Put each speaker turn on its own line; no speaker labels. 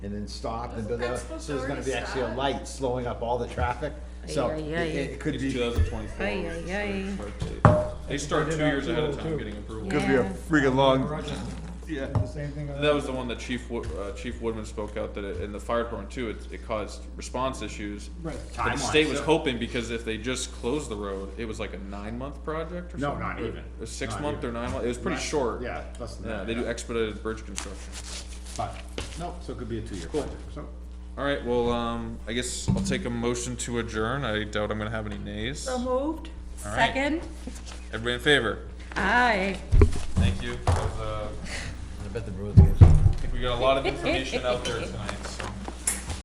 and then stopped and, da- da- da.
That's supposed
so there's
to
gonna be
already
actually a
stop.
light slowing up all the traffic. So
Ay,
it,
ay, ay.
it could
It's
be,
two thousand twenty-four.
Ay, ay, ay.
They start two years ahead of time getting approval.
could be a
Yeah.
freaking long,
Rochester,
Yeah.
the same thing.
That was the one that Chief, Wo- uh, Chief Woodman spoke out that it- in the fire department too, it, it caused response issues.
Right.
But the state was hoping because if they just closed the road, it was like a nine-month project or
No,
something?
not
Or-
even.
Or
Not
six-month
even.
or nine-month, it was pretty
Right.
short.
Yeah, less than
Yeah,
that,
they do
yeah.
expedited bridge construction.
but, no, so it could be a two-year project, so.
All right, well, um, I guess I'll take a motion to adjourn. I doubt I'm gonna have any nays.
So moved.
All right.
Second.
Everybody in favor?
Aye.
Thank you. That was, uh,
I bet the Bruins get
I think we got a lot of information out there tonight.